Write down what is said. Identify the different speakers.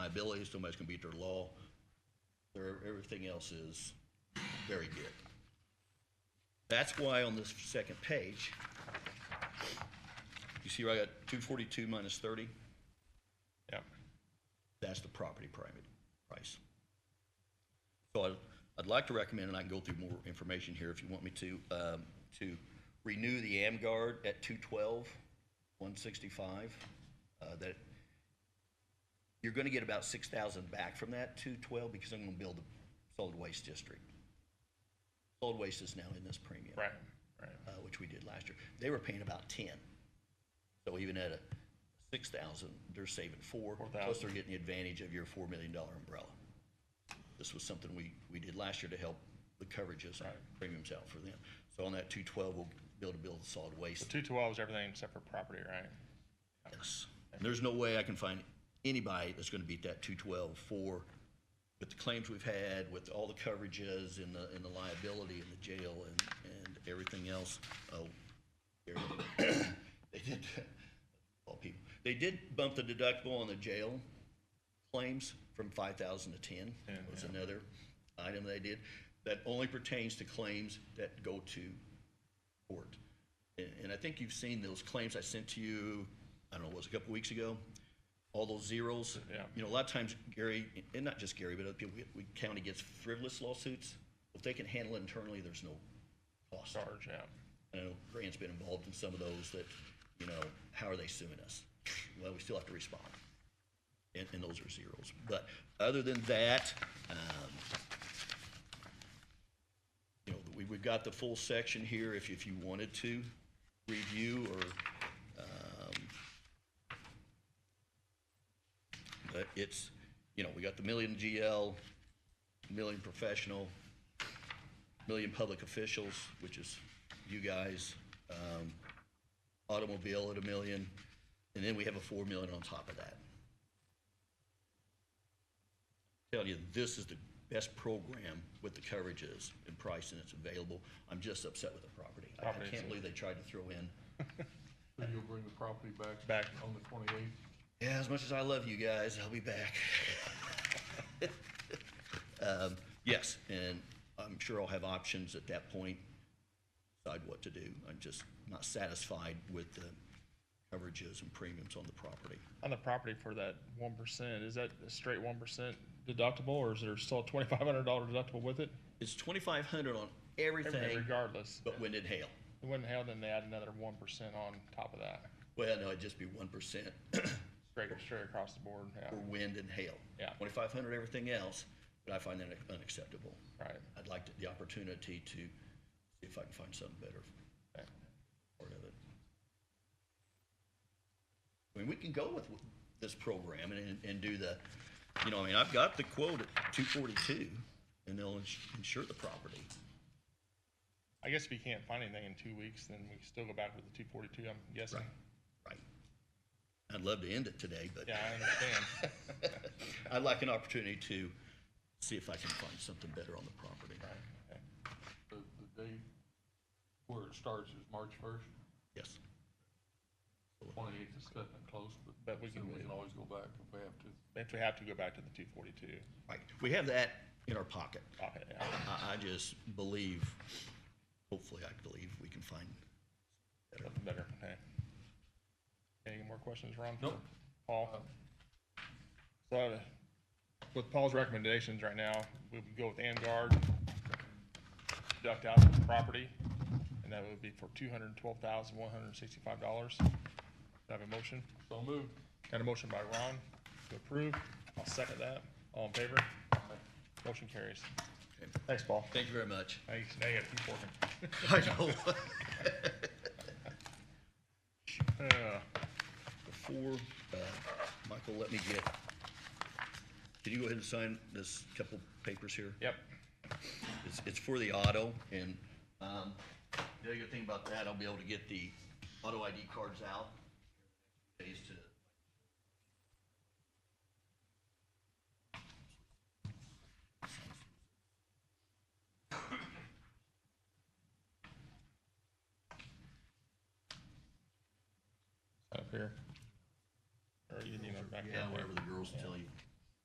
Speaker 1: liabilities, somebody's gonna beat their law. Their, everything else is very good. That's why on this second page, you see where I got two forty-two minus thirty?
Speaker 2: Yeah.
Speaker 1: That's the property private price. So I'd, I'd like to recommend, and I can go through more information here if you want me to, um, to renew the AmGuard at two twelve, one sixty-five. Uh, that, you're gonna get about six thousand back from that two twelve because I'm gonna build a solid waste district. Solid waste is now in this premium
Speaker 2: Right. Right.
Speaker 1: uh, which we did last year, they were paying about ten. So even at a six thousand, they're saving four, plus
Speaker 2: 4,000.
Speaker 1: they're getting the advantage of your four million dollar umbrella. This was something we, we did last year to help the coverages and premiums out for them. So on that two twelve, we'll be able to build a solid waste.
Speaker 2: Two twelve is everything except for property, right?
Speaker 1: Yes. And there's no way I can find anybody that's gonna beat that two twelve for, with the claims we've had, with all the coverages and the, and the liability and the jail and, and everything else. Oh, here it is. they did, all people, they did bump the deductible on the jail claims from five thousand to ten. Was another item they did. That only pertains to claims that go to court. And, and I think you've seen those claims I sent to you, I don't know, was it a couple weeks ago? All those zeros.
Speaker 2: Yeah.
Speaker 1: You know, a lot of times Gary, and not just Gary, but other people, we, county gets frivolous lawsuits. If they can handle it internally, there's no cost.
Speaker 2: Charge, yeah.
Speaker 1: I know Grant's been involved in some of those that, you know, how are they suing us? Well, we still have to respond. And, and those are zeros. But other than that, um, you know, we, we've got the full section here if, if you wanted to review or, um, but it's, you know, we got the million GL, million professional, million public officials, which is you guys, um, automobile at a million, and then we have a four million on top of that. Tell you, this is the best program with the coverages and pricing that's available. I'm just upset with the property. I- I
Speaker 2: Property is-
Speaker 1: can't believe they tried to throw in,
Speaker 3: So you'll bring the property back?
Speaker 2: Back.
Speaker 3: On the twenty-eighth?
Speaker 1: yeah, as much as I love you guys, I'll be back. Um, yes, and I'm sure I'll have options at that point, decide what to do. I'm just not satisfied with the coverages and premiums on the property.
Speaker 2: On the property for that one percent, is that a straight one percent deductible or is there still a twenty five hundred dollar deductible with it?
Speaker 1: It's twenty-five hundred on
Speaker 2: Everything
Speaker 1: everything
Speaker 2: regardless.
Speaker 1: but wind and hail.
Speaker 2: It wouldn't hell then they add another one percent on top of that.
Speaker 1: Well, no, it'd just be one percent
Speaker 2: Straight straight across the board, yeah.
Speaker 1: for wind and hail.
Speaker 2: Yeah.
Speaker 1: Twenty-five hundred everything else, but I find that unacceptable.
Speaker 2: Right.
Speaker 1: I'd like to- the opportunity to see if I can find something better
Speaker 2: Okay.
Speaker 1: part of it. I mean, we can go with this program and, and do the, you know, I mean, I've got the quote at two forty-two, and they'll ins- insure the property.
Speaker 2: I guess if you can't find anything in two weeks, then we can still go back with the two forty two, I'm guessing.
Speaker 1: Right. I'd love to end it today, but
Speaker 2: Yeah, I understand.
Speaker 1: I'd like an opportunity to see if I can find something better on the property.
Speaker 2: Right, okay.
Speaker 3: The, the day where it starts is March first.
Speaker 1: Yes.
Speaker 3: Twenty-eighth is cutting it close, but.
Speaker 2: But we can
Speaker 3: We
Speaker 2: wait.
Speaker 3: can always go back if we have to.
Speaker 2: If we have to go back to the two forty two,
Speaker 1: Right. We have that in our pocket.
Speaker 2: okay, yeah.
Speaker 1: I, I just believe, hopefully I believe we can find better.
Speaker 2: Something better, okay. Any more questions, Ron?
Speaker 3: Nope.
Speaker 2: Paul? So uh, with Paul's recommendations right now, we would go with AmGuard, deduct out the property, and that would be for two hundred and twelve thousand, one hundred and sixty-five dollars. I have a motion?
Speaker 3: So moved.
Speaker 2: Got a motion by Ron to approve. I'll second that. All in favor? Motion carries.
Speaker 1: Okay.
Speaker 2: Thanks, Paul.
Speaker 1: Thank you very much.
Speaker 2: Thanks. Now you gotta keep working.
Speaker 1: I know.
Speaker 2: Uh,
Speaker 1: Before, uh, Michael, let me get, can you go ahead and sign this couple papers here?
Speaker 2: Yep.
Speaker 1: It's, it's for the auto and, um, the other good thing about that, I'll be able to get the auto ID cards out. Days to.
Speaker 2: Up here. Or you need them back
Speaker 1: Yeah,
Speaker 2: down there.
Speaker 1: whatever the girls tell you.